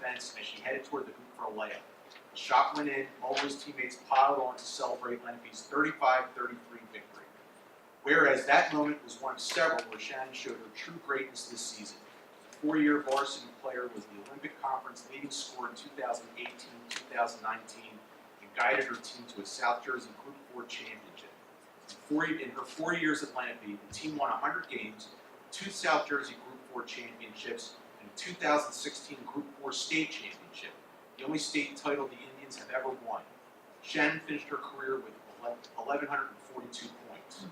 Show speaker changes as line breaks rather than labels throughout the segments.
fence as she headed toward the hoop for a layup. The shot went in, Mobley's teammates piled on to celebrate Lenape's 35-33 victory. Whereas that moment was one of several where Shannon showed her true greatness this season. The Four-year varsity player was the Olympic Conference leading scorer in 2018-2019 and guided her team to a South Jersey Group 4 championship. In, four, in her four years at Lenape, the team won 100 games, two South Jersey Group 4 championships, and a 2016 Group 4 state championship, the only state title the Indians have ever won. Shannon finished her career with 11- 1,142 points.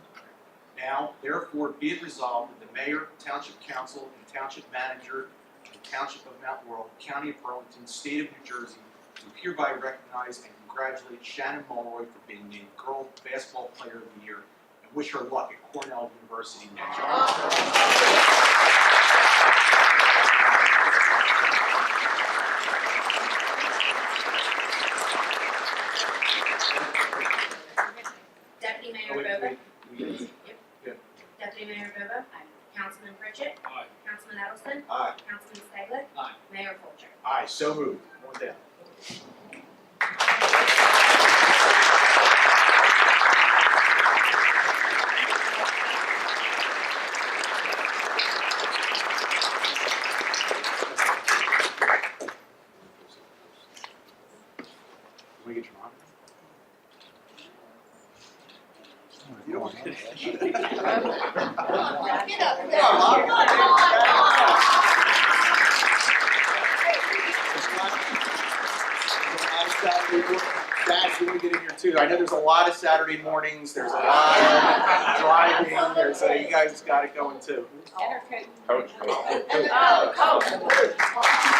Now, therefore, be it resolved that the mayor, township council, and township manager of the township of Mount Laurel, county of Burlington, state of New Jersey, do hereby recognize and congratulate Shannon Mulroy for being named Girl Basketball Player of the Year and wish her luck at Cornell University next year.
Deputy
Oh,
Mayor
wait,
Bobo.
wait, we-
Deputy Mayor Bobo. Councilman Pritchett.
Aye.
Councilman Edelson.
Aye.
Councilman Staglitt.
Aye.
Mayor Coulter.
Aye, so moved. One down. Can we get your mom? You don't want to.
Get up.
Come on, Mom.
Come on, come on.
Dad, you wanna get in here too. I know there's a lot of Saturday mornings, there's a lot of driving, there's, so you guys got it going too.
Coach, come on.
Oh, Coach.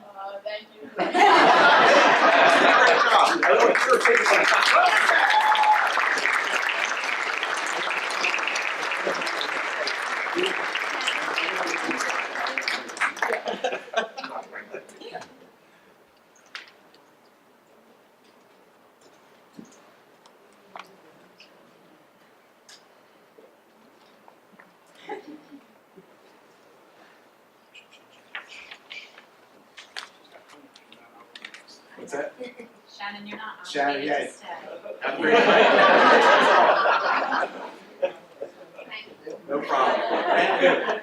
Uh, thank you.
Great job. What's that?
Shannon, you're not on.
Shannon,
You
yeah.
just, uh,
Have a great night.
Thank you.
No problem.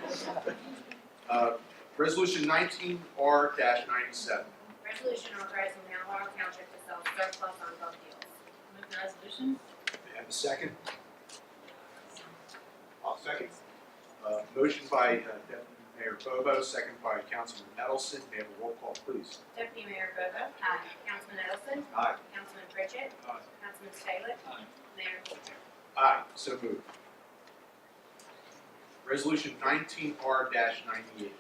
Uh, Resolution nineteen R ninety-seven.
Resolution authorizing Mount Laurel Township to sell surplus on both deals.
Move the resolution.
May I have a second? I'll second. Uh, motion by uh, Deputy Mayor Bobo, second by Councilman Nettleson. May I have a roll call, please?
Deputy Mayor Bobo.
Aye.
Councilman Edelson.
Aye.
Councilman Pritchett.
Aye.
Councilman Staglitt.
Aye.
Mayor Coulter.
Aye, so moved. Resolution nineteen R ninety-eight.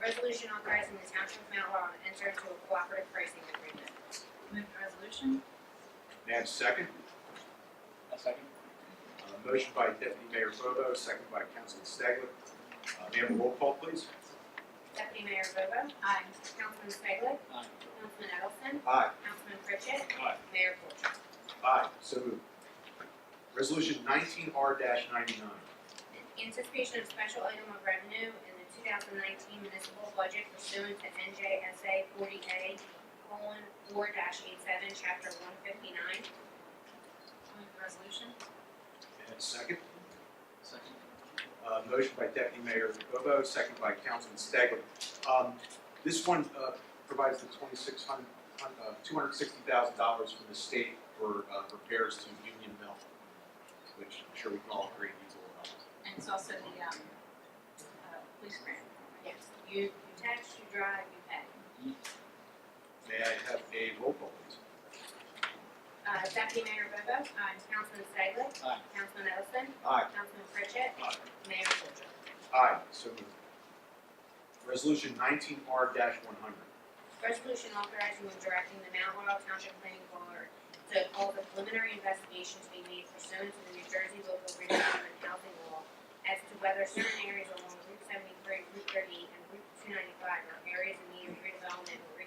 Resolution authorizing the Township of Mount Laurel to enter into a cooperative pricing agreement.
Move the resolution.
May I have a second?
A second.
Uh, motion by Deputy Mayor Bobo, second by Councilman Staglitt. Uh, may I have a roll call, please?
Deputy Mayor Bobo.
Aye.
Councilman Staglitt.
Aye.
Councilman Edelson.
Aye.
Councilman Pritchett.
Aye.
Mayor Coulter.
Aye, so moved. Resolution nineteen R ninety-nine.
Anticipation of special item of revenue in the two thousand nineteen municipal budget pursuant to NJSA forty A colon four eight seven, chapter one fifty-nine.
Move the resolution.
May I have a second?
Second.
Uh, motion by Deputy Mayor Bobo, second by Councilman Staglitt. Um, this one, uh, provides the twenty-six hundred, uh, two hundred sixty thousand dollars from the state for, uh, repairs to Union Mill, which I'm sure we can all agree needs a little help.
And it's also the, um, uh, police grant.
Yes, you, you tax, you drive, you pay.
May I have a roll call, please?
Uh, Deputy Mayor Bobo. Aye. Councilman Staglitt.
Aye.
Councilman Edelson.
Aye.
Councilman Pritchett.
Aye.
Mayor Coulter.
Aye, so moved. Resolution nineteen R one hundred.
Resolution authorizing and directing the Mount Laurel Township Planning Board to call the preliminary investigation to be made pursuant to the New Jersey Local Redevelopment Housing Law as to whether certain areas along Route seventy-three, Route thirty, and Route two ninety-five are areas in need of redevelopment or